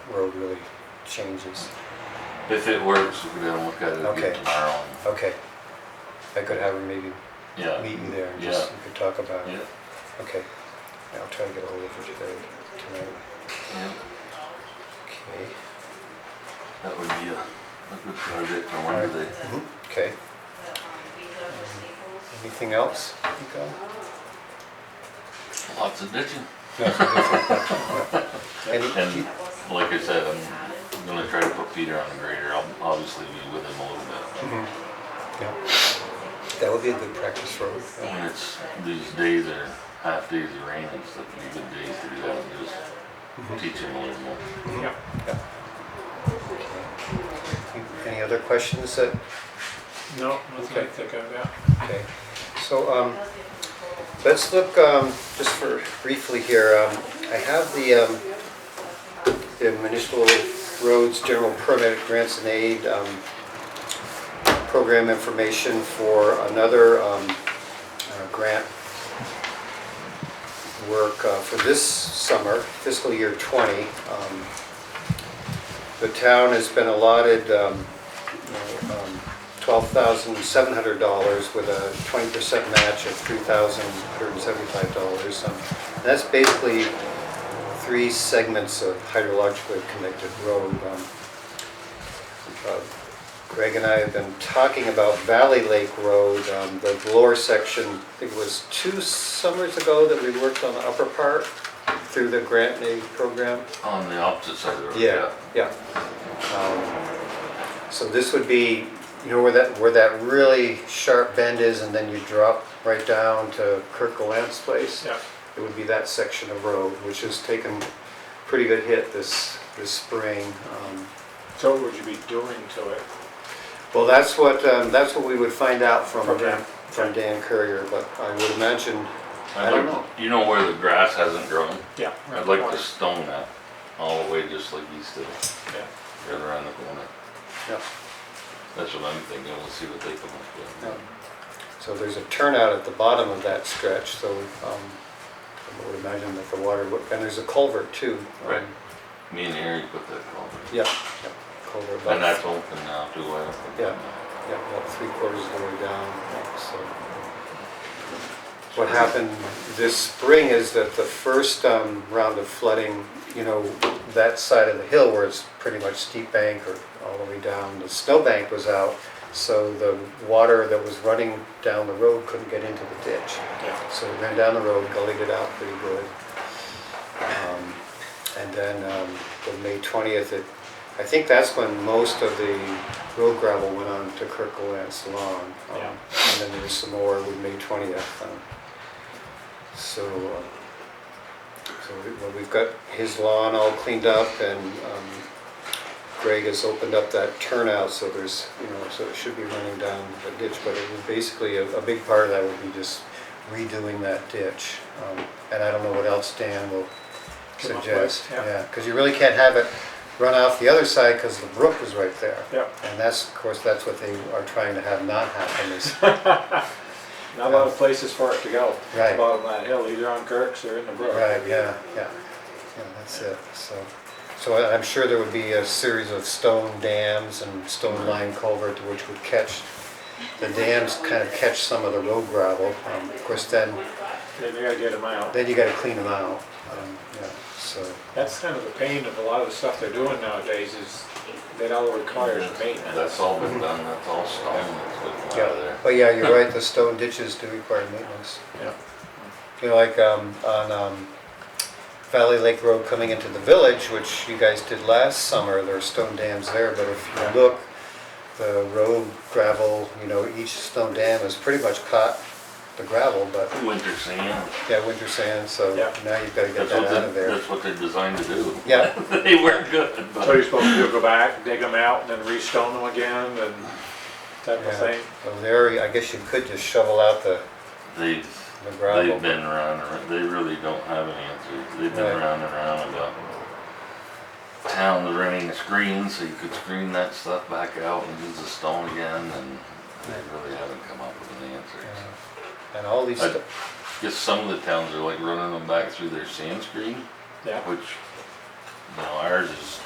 road really changes. If it works, we'll be able to look at it Okay. again tomorrow. and- Okay. I could have her maybe Yeah, meet you there and just, Yeah. we could talk about yeah, it. Okay. Yeah, I'll try to get a hold of her today, tonight. yeah. Okay. That would be a, a good project for Wednesday. Mhm. Mm-hmm. Okay. Anything else? you got? Lots of ditching. No. Any, And like I said, I'm gonna try to put Peter on the grader. I'll obviously be with him a little bit. Mhm. Yeah. That would be a good practice road. yeah. When it's, these days are half days of rain, it's like be good days to do that and Mhm. just teach him a little more. Yeah. Mm-hmm. Any other questions that, No, nothing Okay. I think of, yeah. okay, so, um, let's look, um, just for briefly here, um, I have the, um, the municipal roads general permit grants and aid, um, program information for another, um, uh, grant work uh, for this summer, fiscal year twenty. Um, The town has been allotted, um, $12,700 with a 20% match of $3,175. Um, That's basically three segments of hydrologically connected road. Um, uh, Greg and I have been talking about Valley Lake Road, um, the lower section, I think it was two summers ago that we worked on the upper part through the grant and aid program. On the opposite side of the road, Yeah, yeah. yeah. Um, So this would be, you know, where that, where that really sharp bend is and then you drop right down to Kirk Galant's place? Yeah, It would be that section of road, which has taken pretty good hit this, this spring. Um, so what would you be doing to it? Well, that's what, um, that's what we would find out from, From Dan. from Dan Courier, but I would imagine, I I'd don't like, you know where the grass hasn't grown? Yeah. I'd like to stone that all the way just like he's doing, Yeah. right around the corner. yeah, That's what I'm thinking, we'll see what they come up yeah. with. So there's a turnout at the bottom of that stretch, so um, I would imagine that the water, would- and there's a culvert too. um, Right. Me and Harry put that culvert. Yeah, yeah, culvert. about- And that's open now too, I don't think. Yeah. Yeah, about three quarters of the way down, so. What happened this spring is that the first um, round of flooding, you know, that side of the hill where it's pretty much steep bank or all the way down, the snowbank was out. So the water that was running down the road couldn't get into the ditch. Yeah, So we ran down the road, gullied it out pretty good. Um, And then um, the May 20th, it- I think that's when most of the road gravel went on to Kirkland's lawn. Um, Yeah. And then there was some more with May 20th. um, So, uh, so we- well, we've got his lawn all cleaned up and um, Greg has opened up that turnout, so there's, you know, so it should be running down the ditch, but it would basically, a, a big part of that would be just redoing that ditch. Um, And I don't know what else Dan will Come up with, suggest, yeah. yeah, because you really can't have it run off the other side because the brook is right there. yeah, And that's, of course, that's what they are trying to have not happen is, not a lot of places for it to go. Right. Bottom of that hill, either on Kirk's or in the brook. right, yeah, yeah, yeah, that's it, so. So I- I'm sure there would be a series of stone dams and Mm-hmm. stone line culvert which would catch, the dams kind of catch some of the road gravel. Um, Of course, then, They gotta get them out. then you gotta clean them out, um, yeah, so, That's kind of the pain of a lot of the stuff they're doing nowadays is that all requires And maintenance. That's all been done, that's all stone that's been out of yeah. there. But yeah, you're right, the stone ditches do require maintenance. Yeah, You know, like um, on um, Valley Lake Road coming into the village, which you guys did last summer, there are stone dams there, but if Yeah. you look, the road gravel, you know, each stone dam is pretty much caught the gravel, but, Winter sand, yeah, winter sand, so Yeah. now you've gotta get that's that what out of they, there. that's what they're designed to do. Yeah, They weren't good, so but you're supposed to do, go back, dig them out and then restone them again and type of yeah, thing. so there, I guess you could just shovel out the, they've, the gravel. they've been around, and- they really don't have an answer. They've Right. been around and around about towns running screens, so you could screen that stuff back out and use the stone again, and they really haven't come up with an answer. Yeah. so. And all these, I- sto- Guess some of the towns are like running them back through their sand screen, Yeah. which, you know, ours is